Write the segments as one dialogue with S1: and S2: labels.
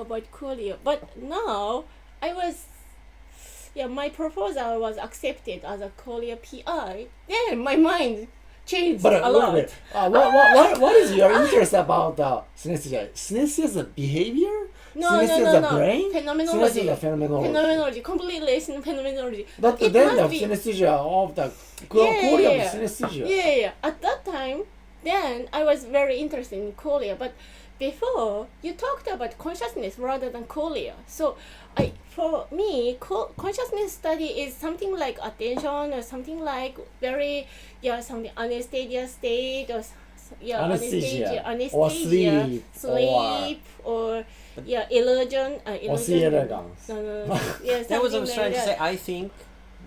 S1: about Coolio. But now I was, yeah, my proposal was accepted as a Coolio PI. Yeah, my mind changed
S2: But
S1: a
S2: uh, wait a
S1: lot.
S2: minute. Uh, what, what, what, what is your interest about uh, synesthesia? Synesthesia is a behavior?
S1: No,
S2: synesthesia
S1: no,
S2: is a
S1: no, no.
S2: brain? Synesthesia
S1: Phenomenology.
S2: is a phenomenology.
S1: Phenomenology. Completely it's in phenomenology.
S2: But
S1: it
S2: then
S1: must
S2: the
S1: be-
S2: synesthesia of the
S1: Yeah,
S2: Korea
S1: yeah, yeah.
S2: of synesthesia.
S1: Yeah, yeah. At that time, then I was very interested in Korea. But before you talked about consciousness rather than Korea. So, I for me, co- consciousness study is something like attention or something like very yeah something anesthesia state or s- yeah
S2: Anesthesia.
S1: anesthesia
S2: Or
S1: anesthesia
S2: sleep,
S1: sleep or, yeah illusion uh,
S2: Or
S1: illusion.
S2: synergons.
S1: no, no, no. Yeah,
S3: That was what I
S1: something
S3: was
S1: like
S3: trying to
S1: that.
S3: say. I think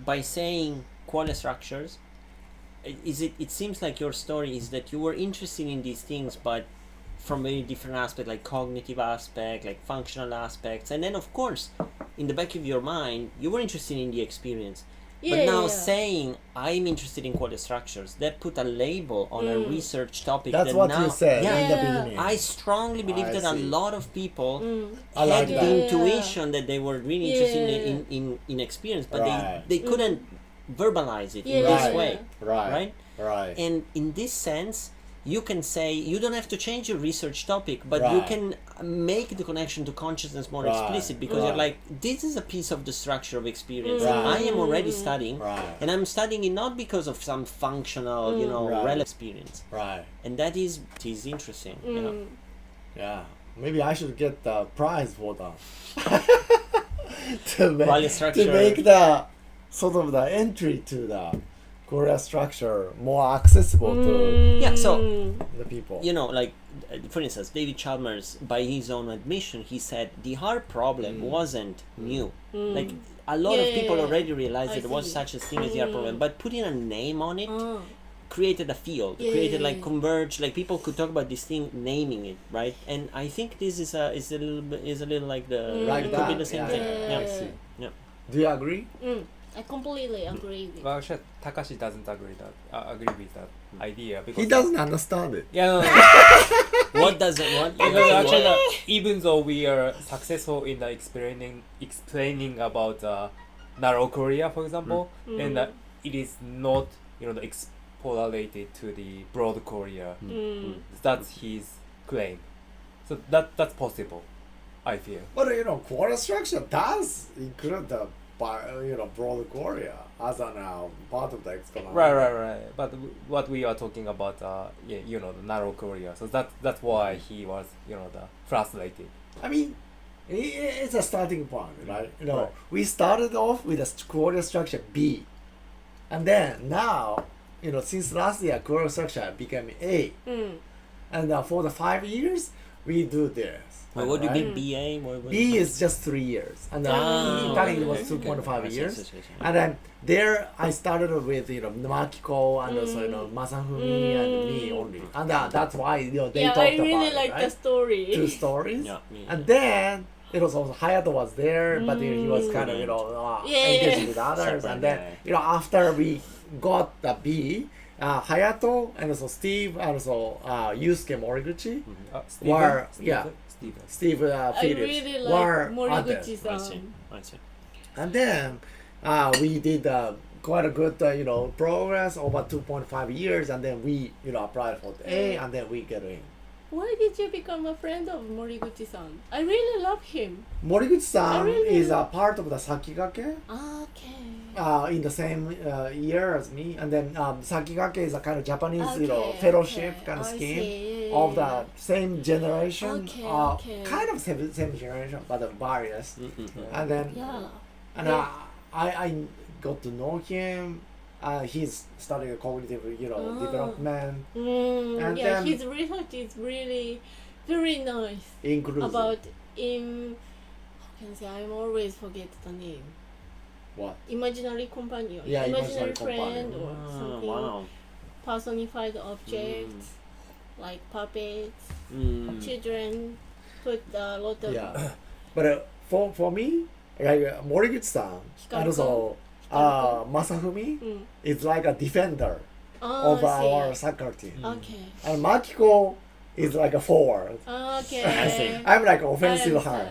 S3: by saying qualia structures, i- is it? It seems like your story is that you were interested in these things, but from very different aspect, like cognitive aspect, like functional aspects, and then of course, in the back of your mind, you were interested in the experience.
S1: Yeah,
S3: but now
S1: yeah.
S3: saying I'm interested in qualia structures, that put a label on a research topic.
S4: That's
S3: that
S4: what
S3: now,
S4: you said
S3: Yeah,
S4: in the
S1: Mm. Yeah. Mm.
S4: beginning.
S3: I strongly believe
S4: I
S3: that a
S4: see.
S3: lot of people
S2: I like
S3: had
S2: that.
S3: the
S1: Yeah.
S3: intuition that they were really interested
S1: Yeah.
S3: in, in, in, in experience, but
S4: Right.
S3: they, they couldn't verbalize it in
S1: Yeah.
S3: this
S4: Right.
S3: way,
S4: right.
S3: right?
S4: Right.
S3: And in this sense, you can say you don't have to change your research topic, but you
S4: Right.
S3: can make the connection to consciousness more
S4: Right.
S3: explicit because you're
S4: Right.
S3: like, this is a piece of the structure of experience.
S4: Right.
S3: I am already studying,
S4: Right.
S3: and I'm studying it not because of some functional, you know,
S4: Mm. Right.
S3: relevant experience,
S4: right.
S3: and that is it is interesting. You know?
S4: Yeah. Maybe I should get the prize for that. to make,
S3: Value
S4: to
S3: structure.
S4: make the sort of the entry to the Korea structure more accessible
S1: Mm.
S4: to
S3: Yeah. So
S4: the people.
S3: you know, like uh, for instance, David Chalmers, by his own admission, he said the hard problem
S4: Hmm.
S3: wasn't new. Like a lot of
S1: Hmm. Yeah,
S3: people
S1: yeah, yeah.
S3: already realized
S1: I
S3: that there was
S1: see. Hmm.
S3: such a thing as the hard problem, but putting a name on it
S1: Oh.
S3: created a field,
S1: Yeah,
S3: created
S1: yeah,
S3: like
S1: yeah.
S3: converge, like people could talk about this thing, naming it, right? And I think this is a is a little bit, is a little like the
S4: Like
S1: Hmm.
S3: it could
S4: that.
S3: be the same
S4: yeah,
S3: thing.
S4: yeah,
S3: Yeah.
S4: I see.
S3: Yeah.
S4: Do you agree?
S1: Mm, I completely agree with
S5: Well, actually, Takashi doesn't agree that uh, agree with that idea because
S4: He doesn't understand it.
S5: Yeah, no, no, no.
S3: What does it want?
S5: because actually, uh, even though we are successful in the explaining explaining about uh, narrow Korea, for example, then uh, it is not you know the extrapolated to the broad Korea.
S1: Mm.
S5: That's his claim. So that that's possible, I feel.
S4: But you know, Korea structure does include the bi- you know broad Korea as an uh, part of the explanation.
S5: Right, right, right. But w- what we are talking about, uh, yeah, you know, the narrow Korea. So that that's why he was, you know, the frustrated.
S4: I mean, i- i- it's a starting point, right? You know,
S5: Right.
S4: we started off with a st- Korea structure B, and then now, you know, since last year, Korea structure became A,
S3: Hmm.
S1: Mm.
S4: and uh, for the five years, we do this.
S3: Wait, what do you
S4: right?
S3: mean BA? What, what
S4: B is just three years, and then
S3: Ah,
S4: in Italy it was
S3: okay.
S4: two point
S3: I
S4: five
S3: see,
S4: years,
S3: I see, I see.
S4: and then there I started with you know Makiko and also you know
S3: Hmm.
S4: Masafumi and me only, and uh, that's why you know they
S1: yeah,
S4: talked
S1: I
S4: about
S1: really
S4: it,
S1: like
S4: right?
S1: the story.
S4: two stories,
S3: Yeah, me,
S4: and then it was also Hayato was there, but then he was kind of you know uh,
S1: Yeah.
S4: engaging with others,
S3: Mm. Separate,
S4: and then
S3: yeah.
S4: you know after we got the B, uh, Hayato and also Steve and also uh, Yusuke Moriguchi.
S3: Mm-hmm.
S5: Uh, Stephen?
S4: Were-
S5: Stephen?
S4: yeah.
S5: Stephen.
S4: Steve uh,
S1: I
S4: Phillips
S1: really
S4: were
S1: like
S4: others.
S3: I see.
S1: Moriguchi-san.
S3: I see.
S4: And then uh, we did uh, quite a good, uh, you know, progress over 2.5 years. And then we, you know, applied for the A and then we get in.
S1: Why did you become a friend of Moriguchi-san? I really love him.
S4: Moriguchi-san
S1: I really-
S4: is a part of the Sakigake
S1: Okay.
S4: uh, in the same uh, year as me. And then um, Sakigake is a kind of Japanese, you know,
S1: Okay,
S4: fellowship
S1: okay.
S4: kind of
S1: I
S4: scheme
S1: see. Yeah,
S4: of
S1: yeah,
S4: the same generation.
S1: Okay,
S4: uh,
S1: okay.
S4: Kind of same, same generation, but uh, various. And then
S1: Yeah.
S4: And uh,
S1: Yeah.
S4: I, I, I got to know him. Uh, he's studying cognitive, you know,
S1: Ah.
S4: development,
S1: Mm,
S4: And
S1: yeah,
S4: then-
S1: his research is really very nice
S4: inclusive.
S1: about im. How can I say? I'm always forget the name.
S4: what?
S1: Imaginary companion.
S4: Yeah,
S1: imaginary,
S4: imaginary
S1: friend
S4: companion.
S1: or
S3: Ah,
S1: something.
S3: wow.
S1: Personified objects like puppets,
S3: Mm.
S1: children. Put a lot of
S4: Yeah. but uh, for for me, like uh, Moriguchi-san and
S1: Hikaru-kun.
S4: also uh, Masafumi
S1: Mm.
S4: is like a defender
S1: Oh,
S4: of
S1: I see.
S4: our soccer team,
S1: Okay.
S4: and Makiko is like a forward.
S1: Okay.
S3: see.
S4: I'm like offensive
S1: understand.
S4: hand.